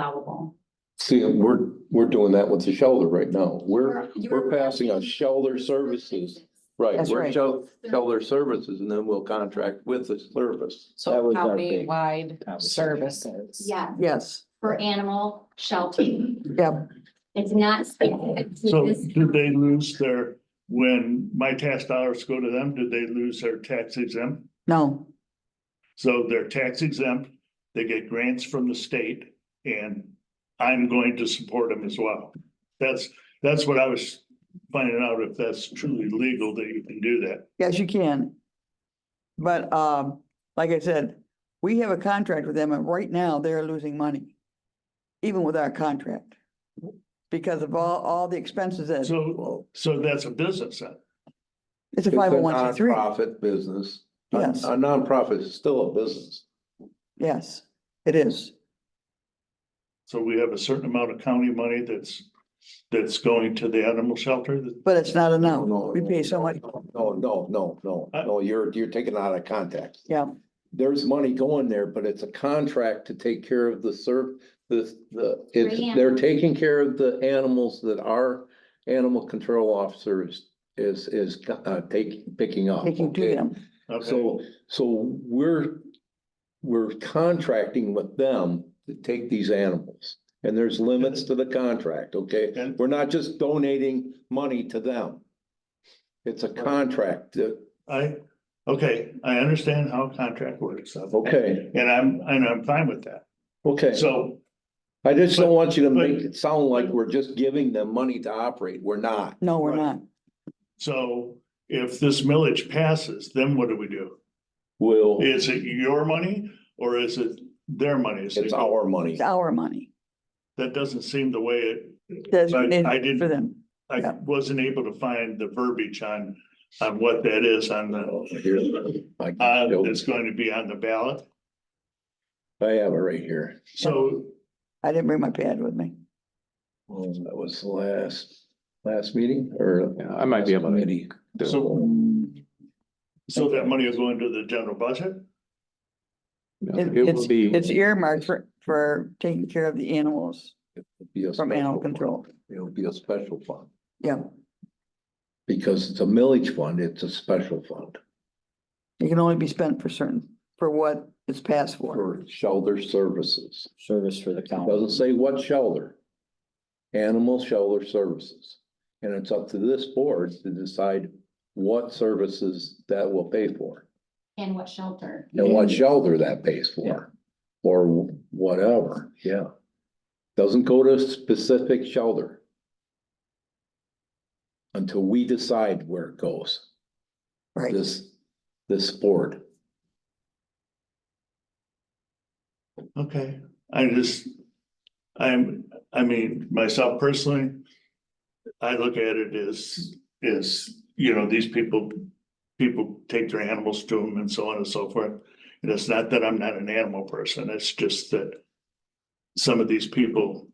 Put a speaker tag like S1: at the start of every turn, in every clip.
S1: allowable.
S2: See, we're, we're doing that with the shelter right now. We're,
S1: You
S2: we're
S1: were-
S2: passing on shelter services. Right,
S3: That's
S2: we're
S3: right.
S2: shel- shelter services and then we'll contract with the service.
S4: That
S5: So
S4: was our big
S5: county-wide
S4: conversation.
S5: services.
S1: Yeah,
S3: Yes,
S1: for animal shelter.
S3: yep,
S1: It's not specific to
S6: So
S1: this.
S6: did they lose their, when my tax dollars go to them, did they lose their tax exempt?
S3: no,
S6: So they're tax exempt, they get grants from the state and I'm going to support them as well. That's, that's what I was finding out if that's truly legal that you can do that.
S3: yes, you can. But, um, like I said, we have a contract with them and right now they're losing money. Even with our contract. Because of all, all the expenses that,
S6: So, so that's a business then.
S3: it's
S2: It's
S3: a
S2: a
S3: five oh one C three,
S2: nonprofit business. A-
S3: Yes.
S2: A nonprofit is still a business.
S3: yes, it is,
S6: So we have a certain amount of county money that's, that's going to the animal shelter.
S3: but it's not enough.
S2: No,
S3: We pay so
S2: no,
S3: much,
S2: No, no, no, no, no, you're, you're taking it out of context.
S3: yeah,
S2: There's money going there, but it's a contract to take care of the serv, the, the,
S1: Free
S2: it's, they're taking care of the animals that our animal control officer is, is, is, uh, taking, picking up.
S3: taking to
S2: okay?
S3: them,
S6: Okay,
S2: So, so we're, we're contracting with them to take these animals. And there's limits to the contract, okay?
S6: And-
S2: We're not just donating money to them. It's a contract, uh, to-
S6: I, okay, I understand how contract works.
S2: okay,
S6: And I'm, and I'm fine with that.
S2: okay.
S6: So,
S2: I just don't want you to
S6: But-
S2: make it sound like we're just giving them money to operate. We're not.
S3: no, we're not,
S6: Right. so if this millage passes, then what do we do?
S2: Will,
S6: Is it your money or is it their money? So
S2: it's our money.
S3: it's our money.
S6: That doesn't seem the way it, I
S3: Designated
S6: didn't-
S3: for them,
S6: I
S3: Yeah.
S6: wasn't able to find the verbiage on, on what that is on the,
S2: Oh, I
S6: uh,
S2: can show
S6: that's going to be on the ballot.
S2: you. I have it right here.
S6: So
S3: I didn't bring my pad with me.
S2: Well, That was the last, last meeting or?
S7: Yeah, I might be able to
S2: Committee.
S7: do it.
S6: So, so that money will go into the general budget?
S3: It-
S7: It
S3: It's,
S7: will be,
S3: it's earmarked for, for taking care of the animals
S2: Be a
S3: from animal
S2: special fund.
S3: control.
S2: It'll be a special fund,
S3: Yeah,
S2: because it's a millage fund, it's a special fund
S3: it can only be spent for certain, for what it's passed for.
S2: for shelter services.
S4: Service for the county.
S2: Doesn't say what shelter. Animal shelter services. And it's up to this board to decide what services that will pay for
S1: And what shelter?
S2: and what shelter that pays for. Or whatever, yeah. Doesn't go to specific shelter. Until we decide where it goes.
S3: Right,
S2: this, this board.
S6: Okay, I just, I'm, I mean, myself personally, I look at it as, as, you know, these people, people take their animals to them and so on and so forth. And it's not that I'm not an animal person, it's just that some of these people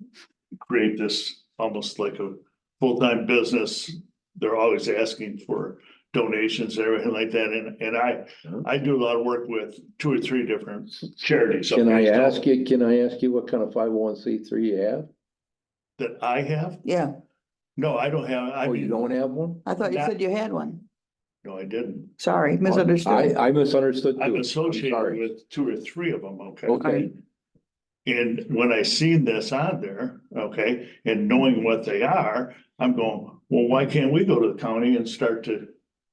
S6: create this almost like a full-time business. They're always asking for donations, and everything like that, and, and I, I do a lot of work with two or three different charities.
S2: Can I
S6: okay, so-
S2: ask you, can I ask you what kind of five oh one C three you have?
S6: That I have?
S3: yeah,
S6: No, I don't have, I
S2: Oh, you
S6: mean,
S2: don't have one?
S3: I thought you
S6: That-
S3: said you had one.
S6: no, I didn't.
S3: Sorry,
S2: I,
S3: misunderstood.
S2: I misunderstood. too.
S6: I'm
S2: I'm
S6: associated
S2: sorry.
S6: with two or three of them, okay?
S2: Okay,
S6: And when I seen this on there, okay, and knowing what they are, I'm going, well, why can't we go to the county and start to,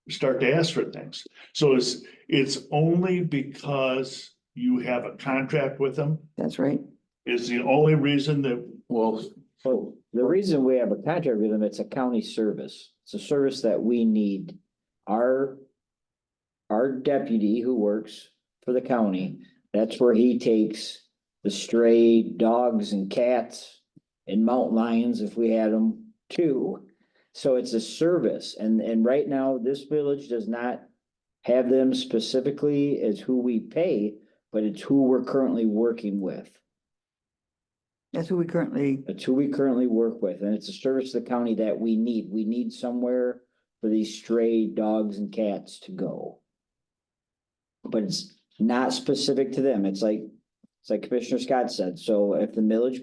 S6: start to ask for things? So it's, it's only because you have a contract with them
S3: That's right.
S6: is the only reason that
S2: well,
S4: Well, the reason we have a contract with them, it's a county service. It's a service that we need. Our, our deputy who works for the county, that's where he takes the stray dogs and cats and mountain lions if we had them too. So it's a service and, and right now this village does not have them specifically as who we pay, but it's who we're currently working with.
S3: That's who we currently,
S4: That's who we currently work with, and it's a service to the county that we need. We need somewhere for these stray dogs and cats to go. But it's not specific to them. It's like, it's like Commissioner Scott said, so if the millage